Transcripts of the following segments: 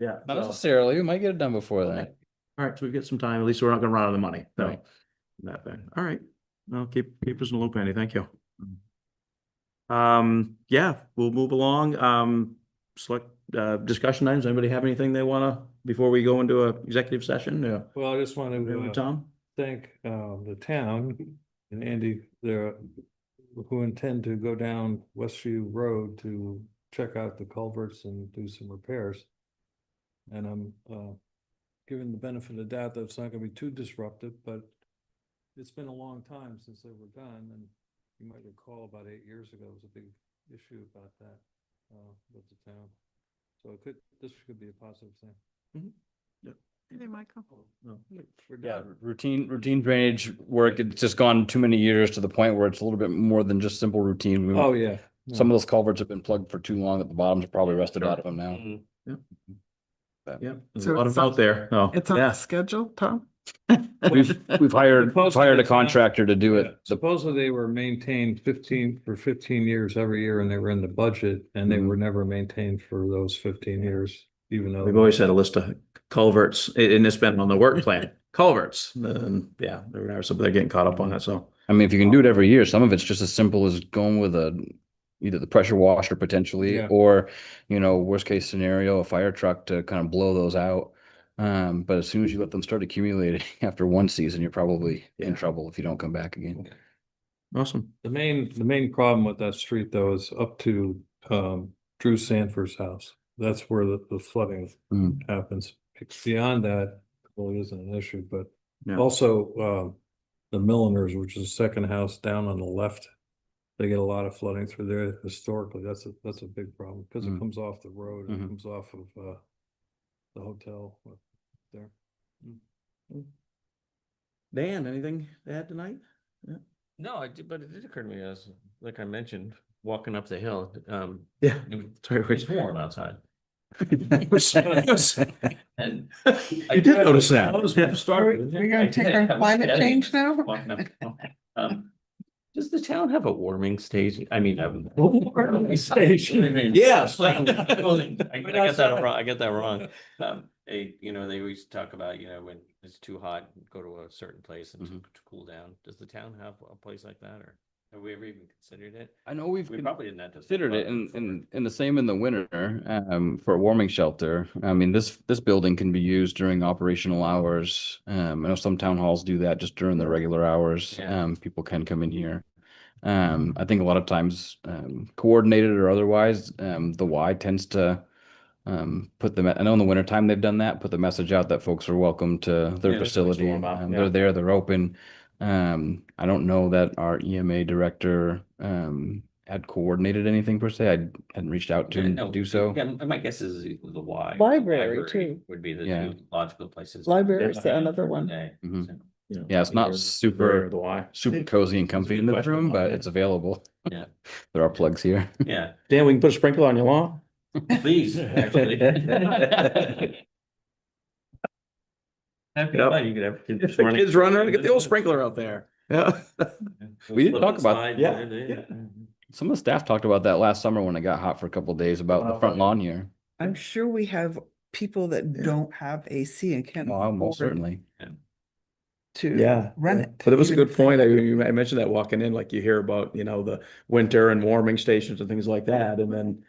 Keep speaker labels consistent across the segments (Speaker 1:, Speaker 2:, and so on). Speaker 1: yeah.
Speaker 2: Not
Speaker 1: so-
Speaker 2: necessarily, we might get it done before
Speaker 1: Okay.
Speaker 2: that.
Speaker 1: All right, so we get some time. At least we're not gonna run out of the money, so.
Speaker 2: Right.
Speaker 1: That thing. All right. No, keep, keep us in the loop, Andy. Thank you. Um, yeah, we'll move along. Um, select, uh, discussion items. Anybody have anything they wanna, before we go into a executive session? Yeah.
Speaker 3: Well, I just want to
Speaker 1: Tom?
Speaker 3: thank um the town and Andy there. Who intend to go down Westview Road to check out the culverts and do some repairs. And I'm uh given the benefit of doubt that it's not gonna be too disruptive, but. It's been a long time since they were done and you might recall about eight years ago was a big issue about that uh with the town. So it could, this could be a positive thing.
Speaker 4: Hey, Michael.
Speaker 1: Oh, No.
Speaker 3: We're
Speaker 2: Yeah,
Speaker 3: done.
Speaker 2: routine, routine drainage work, it's just gone too many years to the point where it's a little bit more than just simple routine. We-
Speaker 3: Oh, yeah. No.
Speaker 2: Some of those culverts have been plugged for too long that the bottoms are probably rusted
Speaker 1: Sure.
Speaker 2: out of them now.
Speaker 1: Yeah, there's a
Speaker 4: So
Speaker 1: lot
Speaker 4: it's
Speaker 1: of out
Speaker 4: on-
Speaker 1: there. Oh,
Speaker 4: It's on
Speaker 1: yeah.
Speaker 4: schedule, Tom?
Speaker 2: We've, we've hired,
Speaker 3: Close to
Speaker 2: hired
Speaker 3: the
Speaker 2: a
Speaker 3: town.
Speaker 2: contractor to do
Speaker 3: Yeah.
Speaker 2: it. The-
Speaker 3: Supposedly they were maintained fifteen, for fifteen years every year and they were in the budget and they were never maintained for those fifteen years, even
Speaker 1: We've
Speaker 3: though.
Speaker 1: always had a list of culverts a- and it's been on the work plan, culverts. And yeah, they're, never- so they're getting caught up on that, so.
Speaker 2: I mean, if you can do it every year, some of it's just as simple as going with a, either the pressure washer potentially,
Speaker 3: Yeah.
Speaker 2: or, you know, worst case scenario, a fire truck to kind of blow those out. Um, but as soon as you let them start accumulating after one season, you're probably in
Speaker 1: Yeah.
Speaker 2: trouble if you don't come back again.
Speaker 1: Awesome.
Speaker 3: The main, the main problem with that street though is up to um Drew Sanford's house. That's where the the flooding
Speaker 2: Mm.
Speaker 3: happens. Beyond that, really isn't an issue, but
Speaker 1: Yeah.
Speaker 3: also um the Milliners, which is the second house down on the left. They get a lot of flooding through there historically. That's a, that's a big problem because it
Speaker 2: Mm.
Speaker 3: comes off the road. It
Speaker 2: Mhm.
Speaker 3: comes off of uh the hotel up there.
Speaker 1: Dan, anything to add tonight?
Speaker 5: No, I did, but it did occur to me as, like I mentioned, walking up the hill, um,
Speaker 1: Yeah.
Speaker 5: it was-
Speaker 1: Sorry,
Speaker 5: it's
Speaker 1: wait.
Speaker 5: warm outside. And I
Speaker 1: You did notice that.
Speaker 5: I was startled.
Speaker 4: We're gonna take our
Speaker 5: I was
Speaker 4: climate change now?
Speaker 5: walking up the hill. Um, Does the town have a warming station? I mean, I'm. Warming station.
Speaker 1: Yes.
Speaker 5: I got that wrong, I got that wrong. Um, they, you know, they always talk about, you know, when it's too hot, go to a certain place
Speaker 1: Mm-hmm.
Speaker 5: and to to cool down. Does the town have a place like that or have we ever even considered it?
Speaker 2: I know we've
Speaker 5: We probably didn't have to. think
Speaker 2: considered it
Speaker 5: about
Speaker 2: and,
Speaker 5: before.
Speaker 2: and, and the same in the winter, um, for a warming shelter. I mean, this, this building can be used during operational hours. Um, I know some town halls do that just during the regular hours.
Speaker 5: Yeah.
Speaker 2: Um, people can come in here. Um, I think a lot of times, um, coordinated or otherwise, um, the Y tends to um, put the, me- I know in the winter time they've done that, put the message out that folks are welcome to their
Speaker 5: Yeah, this makes it
Speaker 2: facility.
Speaker 5: warm up,
Speaker 2: Um,
Speaker 5: yeah.
Speaker 2: They're there, they're open. Um, I don't know that our EMA director, um, had coordinated anything per se. I hadn't reached out to
Speaker 5: Yeah,
Speaker 2: him
Speaker 5: no,
Speaker 2: to do so.
Speaker 5: Yeah, my guess is the Y.
Speaker 4: Library, too.
Speaker 5: Would be the
Speaker 2: Yeah.
Speaker 5: two logical places.
Speaker 4: Library's
Speaker 5: Yeah.
Speaker 4: another one.
Speaker 5: Day,
Speaker 2: Mhm.
Speaker 5: so,
Speaker 2: Yeah, it's not super,
Speaker 1: The why.
Speaker 2: super cozy and comfy
Speaker 1: good
Speaker 2: in this
Speaker 1: question.
Speaker 2: room, but it's available.
Speaker 5: Yeah.
Speaker 2: There are plugs here.
Speaker 5: Yeah,
Speaker 1: Dan, we can put a sprinkler on your lawn.
Speaker 5: please, actually. That'd be
Speaker 1: Yep.
Speaker 5: fun, you could have kids running.
Speaker 1: Kids running, around, get the old sprinkler out there. Yeah.
Speaker 2: We didn't talk about-
Speaker 5: Slide,
Speaker 1: Yeah,
Speaker 5: there,
Speaker 1: yeah.
Speaker 2: Some of the staff talked about that last summer when it got hot for a couple days about the front lawn here.
Speaker 4: I'm sure we have people that don't have AC and can't
Speaker 2: Well, almost
Speaker 4: afford
Speaker 2: certainly.
Speaker 4: to
Speaker 1: Yeah.
Speaker 4: run
Speaker 1: yeah.
Speaker 4: it.
Speaker 1: But it was a
Speaker 4: even-
Speaker 1: good point. I, you- I mentioned that walking in, like you hear about, you know, the winter and warming stations and things like that. And then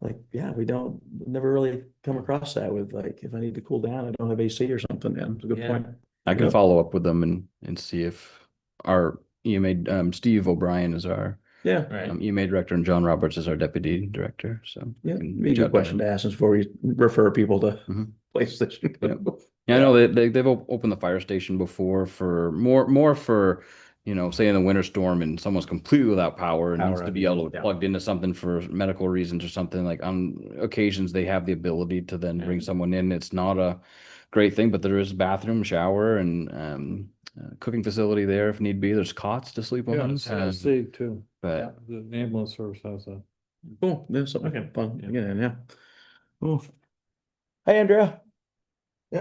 Speaker 1: like, yeah, we don't, never really come across that with like, if I need to cool down, I don't have AC or something. Yeah, it's a good
Speaker 5: Yeah.
Speaker 1: point.
Speaker 2: I can
Speaker 1: Yeah.
Speaker 2: follow up with them and, and see if our EMA, um, Steve O'Brien is our
Speaker 1: Yeah.
Speaker 5: Right.
Speaker 2: um, EMA director and John Roberts is our deputy director, so.
Speaker 1: Yeah,
Speaker 2: we can
Speaker 1: be a
Speaker 2: reach
Speaker 1: good Mm-hmm.
Speaker 2: out to
Speaker 1: question
Speaker 2: them.
Speaker 1: to ask is before we refer people to
Speaker 2: Mhm.
Speaker 1: places that should
Speaker 2: Yep.
Speaker 1: go.
Speaker 2: Yeah, I know they, they they've op- opened the fire station before for more more for you know say in the winter storm and someone's completely without power and needs
Speaker 1: Power
Speaker 2: to
Speaker 1: outage,
Speaker 2: be able to
Speaker 1: yeah.
Speaker 2: plugged into something for medical reasons or something like on occasions they have the ability to then bring
Speaker 5: Mm.
Speaker 2: someone in. It's not a great thing, but there is bathroom, shower, and um, uh, cooking facility there if need be. There's cots to sleep
Speaker 3: Yeah,
Speaker 2: on.
Speaker 3: I
Speaker 2: um,
Speaker 3: see too.
Speaker 2: but
Speaker 3: The ambulance service has that.
Speaker 1: Cool, there's
Speaker 5: Okay.
Speaker 1: something fun,
Speaker 5: Yeah.
Speaker 1: yeah, yeah. Cool. Hey, Andrea.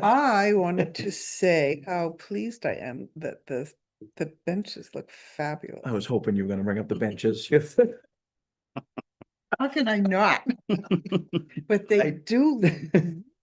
Speaker 4: I wanted to say how pleased I am that the, the benches look fabulous.
Speaker 1: I was hoping you were gonna bring up the benches.
Speaker 4: How can I not? But they do, look